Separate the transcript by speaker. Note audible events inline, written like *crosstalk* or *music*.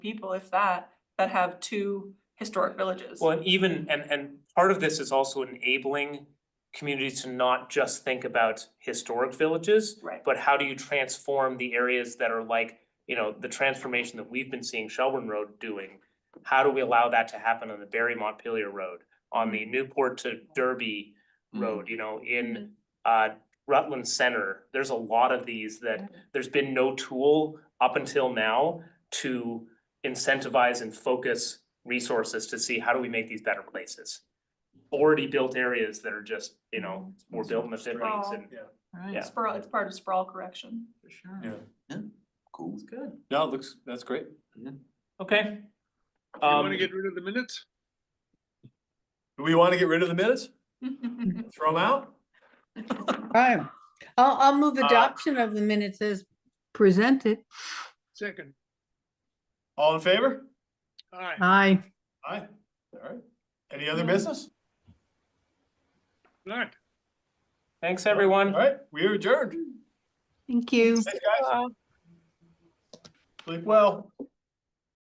Speaker 1: people, if that, that have two historic villages.
Speaker 2: Well, and even, and and part of this is also enabling communities to not just think about historic villages.
Speaker 1: Right.
Speaker 2: But how do you transform the areas that are like, you know, the transformation that we've been seeing Shelburne Road doing? How do we allow that to happen on the Barry Montpelier Road, on the Newport to Derby Road, you know,
Speaker 1: Mm-hmm.
Speaker 2: in uh Rutland Center? There's a lot of these that,
Speaker 3: Mm-hmm.
Speaker 2: there's been no tool up until now to incentivize and focus resources to see how do we make these better places? Already built areas that are just, you know,
Speaker 3: Mm-hmm.
Speaker 2: were built in the fifties and
Speaker 4: Right.
Speaker 2: Yeah.
Speaker 1: Sprawl, it's part of sprawl correction. *laughs*
Speaker 4: For sure.
Speaker 5: Yeah.
Speaker 4: Cool.
Speaker 5: It's
Speaker 4: good.
Speaker 5: No, it looks, that's great.
Speaker 2: Okay.
Speaker 3: You wanna
Speaker 2: Um,
Speaker 3: get rid of the minutes?
Speaker 5: Do we want to get rid of the minutes? Throw them out?
Speaker 6: Right. I'll, I'll move
Speaker 5: Uh,
Speaker 6: adoption of the minutes as presented.
Speaker 3: Second,
Speaker 5: All in favor?
Speaker 3: aye.
Speaker 6: Aye.
Speaker 5: Aye. All right. Any other business?
Speaker 3: All right.
Speaker 2: thanks,
Speaker 5: All
Speaker 2: everyone.
Speaker 5: right, we are adjourned.
Speaker 6: Thank you.
Speaker 5: Thanks, guys. Sleep well.